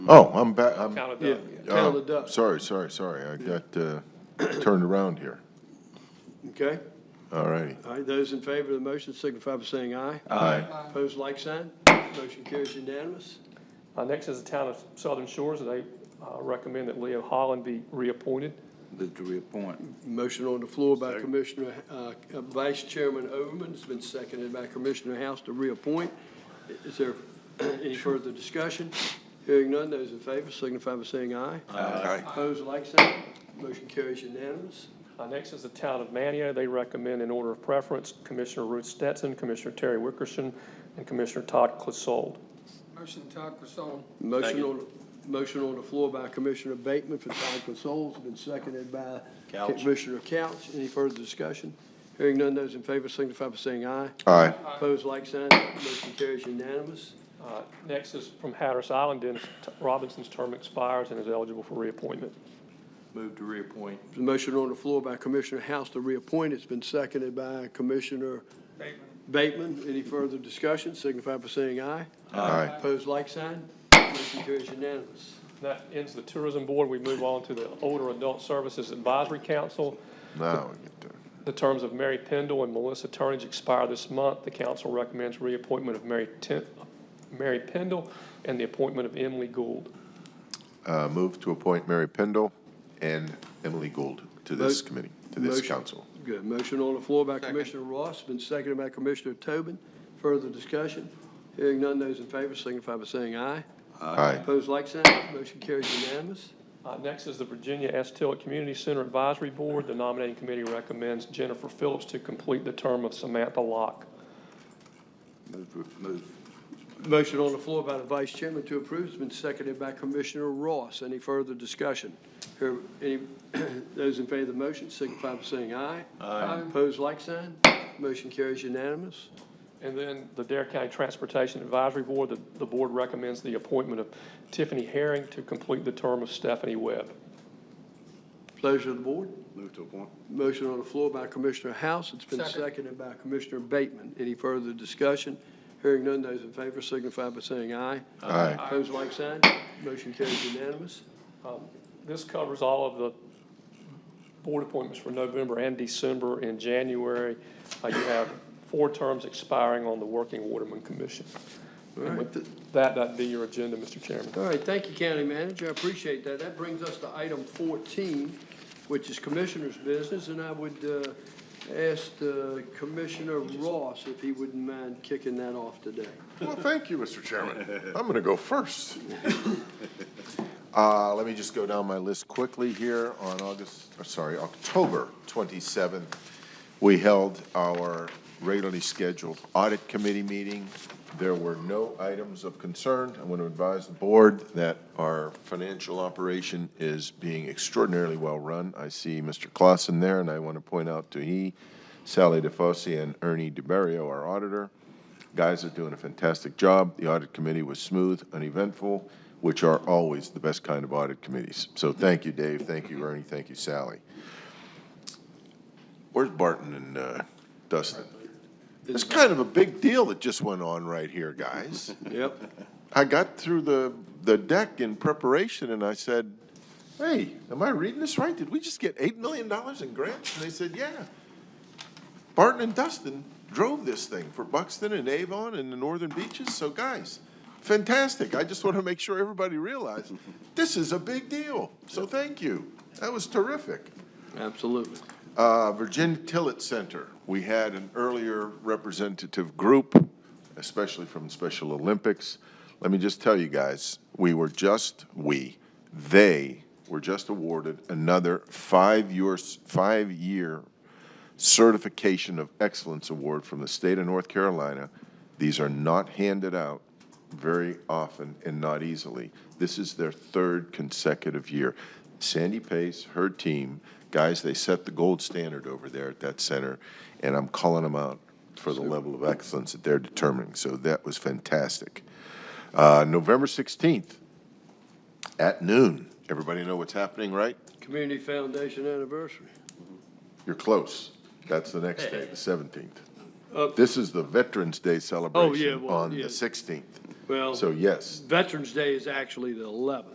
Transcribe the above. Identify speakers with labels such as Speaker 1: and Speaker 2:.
Speaker 1: Oh, I'm back, I'm.
Speaker 2: Town of
Speaker 3: Yeah,
Speaker 2: Doug, yeah.
Speaker 3: Town
Speaker 1: uh,
Speaker 3: of Duck,
Speaker 1: Sorry, sorry, sorry, I got uh, turned around here.
Speaker 3: okay?
Speaker 1: All righty.
Speaker 3: All right, those in favor of the motion signify by saying aye.
Speaker 1: Aye.
Speaker 3: Opposed, like sign. Motion carries unanimous.
Speaker 2: Uh, Next is the town of Southern Shores, and they uh, recommend that Leo Holland be reappointed.
Speaker 4: Move to reappoint.
Speaker 3: Motion on the floor by Commissioner, uh, uh, Vice Chairman Overman, it's been seconded by Commissioner House to reappoint. Is there any further discussion? Hearing none, those in favor signify by saying aye.
Speaker 1: Aye.
Speaker 3: Opposed, like sign. Motion carries unanimous.
Speaker 2: Uh, Next is the town of Manio. They recommend in order of preference Commissioner Ruth Stetson, Commissioner Terry Wickerson, and Commissioner Todd Clissold.
Speaker 5: Motion Todd Crisol.
Speaker 3: Motion on, motion on the floor by Commissioner Bateman for Todd Consols, been seconded by
Speaker 4: Couch.
Speaker 3: Commissioner Couch. Any further discussion? Hearing none, those in favor signify by saying aye.
Speaker 1: Aye.
Speaker 3: Opposed, like sign. Motion carries unanimous.
Speaker 2: Uh, Next is from Hatteras Island, Dennis T- Robinson's term expires and is eligible for reappointment.
Speaker 4: Move to reappoint.
Speaker 3: The motion on the floor by Commissioner House to reappoint, it's been seconded by Commissioner
Speaker 5: Bateman.
Speaker 3: Bateman. Any further discussion? Signify by saying aye.
Speaker 1: Aye.
Speaker 3: Opposed, like sign. Motion carries unanimous.
Speaker 2: That ends the tourism board. We move on to the Older Adult Services Advisory Council.
Speaker 1: Now we get to,
Speaker 2: The terms of Mary Pendle and Melissa Turnage expire this month. The council recommends reappointment of Mary Ten, Mary Pendle and the appointment of Emily Gould.
Speaker 1: uh, move to appoint Mary Pendle and Emily Gould to this
Speaker 3: Mo-
Speaker 1: committee, to this
Speaker 3: motion.
Speaker 1: council.
Speaker 3: Good. Motion on the floor by Commissioner Ross, been seconded by Commissioner Tobin. Further discussion? Hearing none, those in favor signify by saying aye.
Speaker 1: Aye.
Speaker 3: Opposed, like sign. Motion carries unanimous.
Speaker 2: Uh, next is the Virginia S. Tillett Community Center Advisory Board. The nominating committee recommends Jennifer Phillips to complete the term of Samantha Locke.
Speaker 4: Move, to- move.
Speaker 3: Motion on the floor by the Vice Chairman to approve has been seconded by Commissioner Ross. Any further discussion? Here, any, those in favor of the motion signify by saying aye. Aye. Opposed, like sign. Motion carries unanimous.
Speaker 2: And then the Dare County Transportation Advisory Board, the, the board recommends the appointment of Tiffany Herring to complete the term of Stephanie Webb.
Speaker 3: Pleasure of the board.
Speaker 4: Move to appoint.
Speaker 3: Motion on the floor by Commissioner House. It's been
Speaker 5: Second.
Speaker 3: seconded by Commissioner Bateman. Any further discussion? Hearing none, those in favor signify by saying aye.
Speaker 1: Aye.
Speaker 3: Opposed, like sign. Motion carries unanimous.
Speaker 2: Um, This covers all of the board appointments for November and December and January. Uh, You have four terms expiring on the Working Waterman Commission. And with that, that'd be your agenda, Mr. Chairman.
Speaker 3: All right, thank you, County Manager, I appreciate that. That brings us to item 14, which is Commissioner's business, and I would uh, ask uh, Commissioner Ross if he wouldn't mind kicking that off today.
Speaker 1: Well, thank you, Mr. Chairman. I'm going to go first. Uh, Let me just go down my list quickly here. On August, or sorry, October 27th, we held our regularly scheduled audit committee meeting. There were no items of concern. I want to advise the board that our financial operation is being extraordinarily well-run. I see Mr. Clausen there, and I want to point out to he, Sally DeFosse, and Ernie DiBerio, our auditor. Guys are doing a fantastic job. The audit committee was smooth, uneventful, which are always the best kind of audit committees. So thank you, Dave. Thank you, Ernie. Thank you, Sally. Where's Barton and uh, Dustin? It's kind of a big deal that just went on right here, guys.
Speaker 3: Yep.
Speaker 1: I got through the, the deck in preparation and I said, hey, am I reading this right? Did we just get $8 million in grants? And they said, yeah. Barton and Dustin drove this thing for Buxton and Avon and the northern beaches. So guys, fantastic. I just want to make sure everybody realized this is a big deal. So thank you. That was terrific.
Speaker 3: Absolutely.
Speaker 1: Uh, Virginia Tillett Center, we had an earlier representative group, especially from Special Olympics. Let me just tell you guys, we were just, we, they were just awarded another five-year, five-year Certification of Excellence Award from the state of North Carolina. These are not handed out very often and not easily. This is their third consecutive year. Sandy Pace, her team, guys, they set the gold standard over there at that center, and I'm calling them out for the level of excellence that they're determining. So that was fantastic. Uh, November 16th at noon. Everybody know what's happening, right?
Speaker 3: Community Foundation anniversary.
Speaker 1: You're close. That's the next day, the 17th.
Speaker 3: up,
Speaker 1: This is the Veterans Day
Speaker 3: Uh, oh, yeah,
Speaker 1: celebration
Speaker 3: well,
Speaker 1: on the
Speaker 3: yeah.
Speaker 1: 16th.
Speaker 3: well,
Speaker 1: So yes,
Speaker 3: Veterans Day is actually the 11th.